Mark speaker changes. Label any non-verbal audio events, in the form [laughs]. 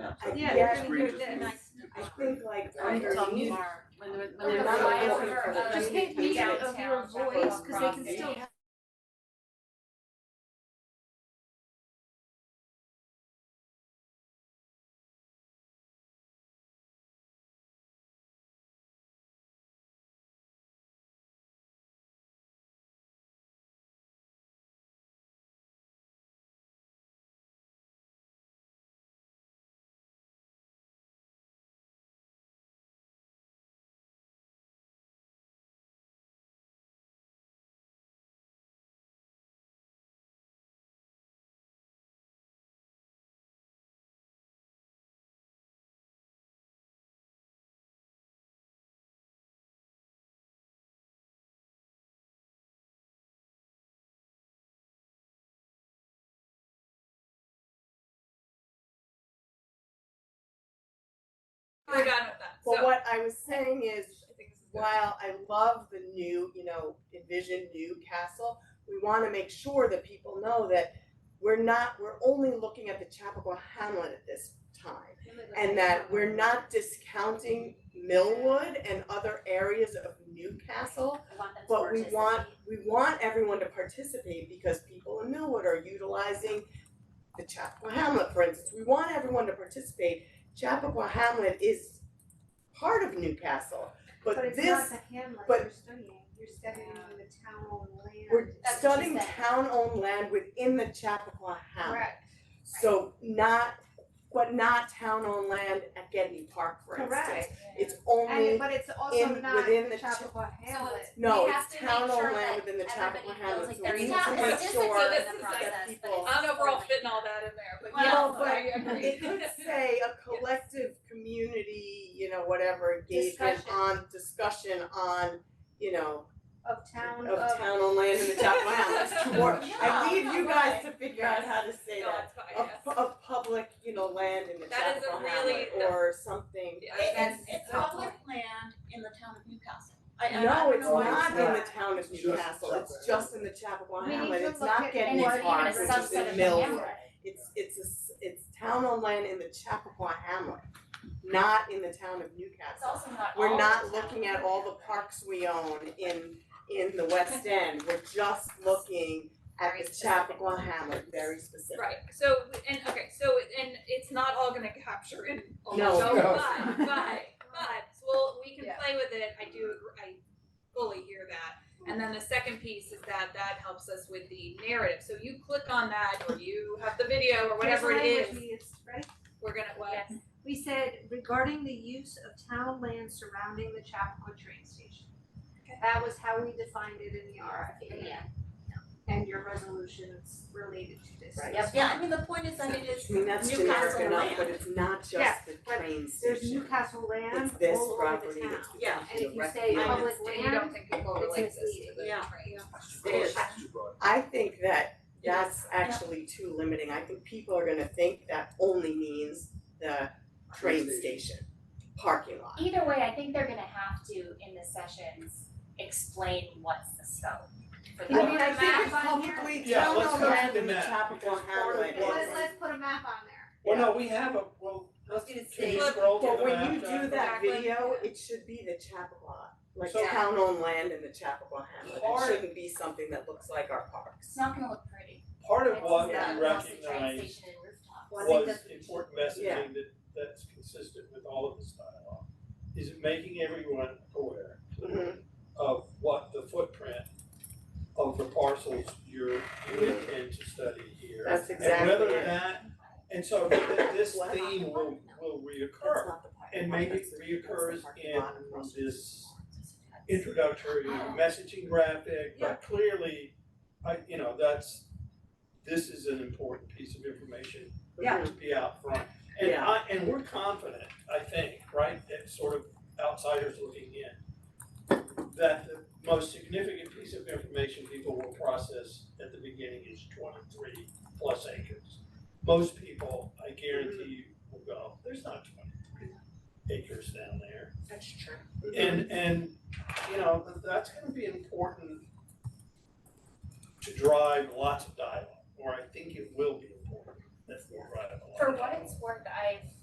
Speaker 1: Yeah.
Speaker 2: Uh,
Speaker 3: So
Speaker 1: Yeah,
Speaker 3: the
Speaker 1: they're
Speaker 3: screen
Speaker 1: gonna do
Speaker 3: just
Speaker 1: it
Speaker 3: needs-
Speaker 1: this.
Speaker 3: yeah.
Speaker 2: I think like
Speaker 4: I
Speaker 2: under
Speaker 4: tell
Speaker 2: mute,
Speaker 4: you.
Speaker 1: When they're,
Speaker 2: Or
Speaker 1: when they're.
Speaker 2: the
Speaker 1: live.
Speaker 2: live or- uh,
Speaker 1: Just take me out of your voice, cause they can still have.
Speaker 4: We're done with that, so
Speaker 2: but what I was saying is,
Speaker 4: I think this is good.
Speaker 2: while I love the new, you know, envision new castle, we wanna make sure that people know that we're not, we're only looking at the Chappaqua Hamlet at this time. And that we're not discounting Millwood and other areas of Newcastle But we want, we want everyone to participate because people in Millwood are utilizing the Chappaqua Hamlet, for instance, we want everyone to participate. Chappaqua Hamlet is part of Newcastle, but this, but-
Speaker 5: it's not the Hamlet you're studying, you're studying the town on land.
Speaker 2: we're
Speaker 5: That's what she
Speaker 2: studying
Speaker 5: said.
Speaker 2: town-owned land within the Chappaqua Hamlet.
Speaker 5: Correct,
Speaker 2: So not, but not town-owned land at Getney Park, for instance.
Speaker 5: correct,
Speaker 2: It's only,
Speaker 5: and but it's also
Speaker 2: in-
Speaker 5: not
Speaker 2: within
Speaker 5: the
Speaker 2: the cha-
Speaker 5: Chappaqua Hamlet,
Speaker 2: no,
Speaker 6: we have
Speaker 2: it's
Speaker 6: to make sure
Speaker 2: town-owned land
Speaker 6: that
Speaker 2: within the Chappaqua Hamlet,
Speaker 6: everybody feels like
Speaker 2: so
Speaker 6: they're
Speaker 2: we need
Speaker 6: not
Speaker 2: to make
Speaker 6: participating
Speaker 2: sure
Speaker 4: in the
Speaker 2: that
Speaker 6: process, but
Speaker 2: people-
Speaker 4: I don't know if we're all fitting all that in there, but yeah,
Speaker 2: Well,
Speaker 4: I agree. [laughs]
Speaker 2: It could say a collective community, you know, whatever engagement
Speaker 5: Discussion.
Speaker 2: on discussion on, you know,
Speaker 5: of town of.
Speaker 2: of town on land in the town wow. Or I
Speaker 6: No,
Speaker 2: leave you
Speaker 6: no
Speaker 2: guys to figure out how to say
Speaker 4: No,
Speaker 2: that.
Speaker 4: it's fine,
Speaker 2: Of
Speaker 4: yes.
Speaker 2: of public, you know, land in the
Speaker 4: That is a
Speaker 2: Chappaqua
Speaker 4: really-
Speaker 2: Hamlet or something.
Speaker 4: Yeah,
Speaker 6: It-
Speaker 4: that's-
Speaker 6: It's, it's public land in the town of Newcastle. I, I, I
Speaker 2: No,
Speaker 6: don't
Speaker 2: it's
Speaker 6: know why.
Speaker 2: not in the
Speaker 5: not.
Speaker 2: town of
Speaker 3: It's just
Speaker 2: Newcastle,
Speaker 3: Chappaqua.
Speaker 2: it's just in the Chappaqua
Speaker 5: We need
Speaker 2: Hamlet,
Speaker 5: to
Speaker 2: it's
Speaker 5: look
Speaker 2: not
Speaker 5: at-
Speaker 6: And
Speaker 2: getting
Speaker 6: it's
Speaker 2: as
Speaker 6: even
Speaker 2: far
Speaker 6: a
Speaker 2: as it's
Speaker 6: subset
Speaker 2: in
Speaker 6: of
Speaker 2: Millwood.
Speaker 6: the hamlet.
Speaker 2: It's it's a s it's town on land in the Chappaqua Hamlet, not in the town of
Speaker 6: It's
Speaker 2: Newcastle.
Speaker 6: also not all
Speaker 2: We're
Speaker 6: the
Speaker 2: not
Speaker 6: town.
Speaker 2: looking at all the parks we own in in the
Speaker 6: [laughs]
Speaker 2: West End, we're just looking at
Speaker 6: Very
Speaker 2: the
Speaker 6: specific.
Speaker 2: Chappaqua Hamlet, very specific.
Speaker 4: Right, so, and, okay, so, and it's not all gonna capture in all the
Speaker 2: No.
Speaker 4: show,
Speaker 3: No.
Speaker 4: but, but, but, well, we can
Speaker 5: Yeah.
Speaker 4: play with it, I do, agree- I fully hear that. And then the second piece is that that helps us with the narrative, so you click on that, or you have the video, or whatever it
Speaker 5: Here's
Speaker 4: is,
Speaker 5: language we used, right?
Speaker 4: we're gonna, what?
Speaker 6: Yes.
Speaker 5: We said regarding the use of town land surrounding the Chappaqua train station. That was how we defined it in the RFP.
Speaker 6: Yeah.
Speaker 5: And your resolution is related to this.
Speaker 2: Right.
Speaker 6: Yep, yeah, I mean, the point is that it is
Speaker 2: I mean, that's generic
Speaker 6: Newcastle
Speaker 2: enough, but
Speaker 6: land.
Speaker 2: it's not
Speaker 5: Yeah,
Speaker 2: just the
Speaker 5: but
Speaker 2: train
Speaker 5: There's
Speaker 2: station,
Speaker 5: Newcastle land
Speaker 2: it's this
Speaker 5: all over the
Speaker 2: property,
Speaker 5: town.
Speaker 2: it's the
Speaker 6: Yeah.
Speaker 5: And if you
Speaker 2: Right.
Speaker 5: say
Speaker 2: Yeah.
Speaker 5: public
Speaker 4: And you
Speaker 5: land,
Speaker 4: don't think people
Speaker 5: it's
Speaker 4: relate this to
Speaker 5: misleading.
Speaker 4: the
Speaker 6: Yeah.
Speaker 4: train?
Speaker 2: There's- I think that
Speaker 6: It is.
Speaker 2: that's actually too limiting, I think people are gonna think that only means the train station, parking lot.
Speaker 6: Either way, I think they're gonna have to, in the sessions, explain what's the scope for the.
Speaker 5: I mean, I think
Speaker 2: it's
Speaker 5: it's on here.
Speaker 2: publicly
Speaker 3: Yeah,
Speaker 2: town
Speaker 3: let's
Speaker 2: on
Speaker 3: go to
Speaker 2: land
Speaker 3: the
Speaker 2: in the
Speaker 3: map.
Speaker 2: Chappaqua Hamlet.
Speaker 3: Yeah.
Speaker 5: let's let's put a map on there.
Speaker 3: Well, no, we have a, well, let's,
Speaker 6: I was gonna
Speaker 3: can
Speaker 6: say-
Speaker 3: you scroll to Uh, the
Speaker 2: But when
Speaker 3: map,
Speaker 2: you do
Speaker 3: Jonathan?
Speaker 2: that
Speaker 4: Jacqueline?
Speaker 2: video, it should be the Chappaqua, like
Speaker 3: So-
Speaker 2: town on land in the Chappaqua Hamlet,
Speaker 3: Or-
Speaker 2: it shouldn't be something that looks like our parks.
Speaker 6: It's not gonna look pretty.
Speaker 3: Part of
Speaker 6: It's
Speaker 3: what we
Speaker 6: not across the train
Speaker 3: recognized
Speaker 6: station and rooftops.
Speaker 5: Well, I
Speaker 3: was
Speaker 5: think that's-
Speaker 3: important
Speaker 2: Yeah.
Speaker 3: messaging that, that's consistent with all of this dialogue, is it making everyone aware
Speaker 2: Mhm.
Speaker 3: of what the footprint of the parcels you're, you intend to study here.
Speaker 2: Mm-hmm. That's
Speaker 3: And
Speaker 2: exactly
Speaker 3: whether
Speaker 2: it.
Speaker 3: that, and so th- this
Speaker 2: What?
Speaker 3: theme will, will
Speaker 2: That's
Speaker 3: reoccur,
Speaker 2: not the park.
Speaker 3: and maybe it
Speaker 2: That's the- that's the
Speaker 3: reoccurs
Speaker 2: parking
Speaker 3: in
Speaker 2: lot across the
Speaker 3: this
Speaker 2: street.
Speaker 3: introductory messaging graphic, but clearly, I, you know, that's, this is an important piece of information
Speaker 2: Yeah.
Speaker 3: to be out front. And
Speaker 2: Yeah.
Speaker 3: I, and we're confident, I think, right, that sort of outsiders looking in, that the most significant piece of information people will process at the beginning is twenty-three plus acres. Most people, I guarantee you, will go, there's not twenty-three acres down there.
Speaker 6: That's true.
Speaker 3: And and, you know, th- that's gonna be important to drive lots of dialogue, or I think it will be important if we drive a lot
Speaker 6: For
Speaker 3: of
Speaker 6: what
Speaker 3: dialogue.
Speaker 6: it's worth, I've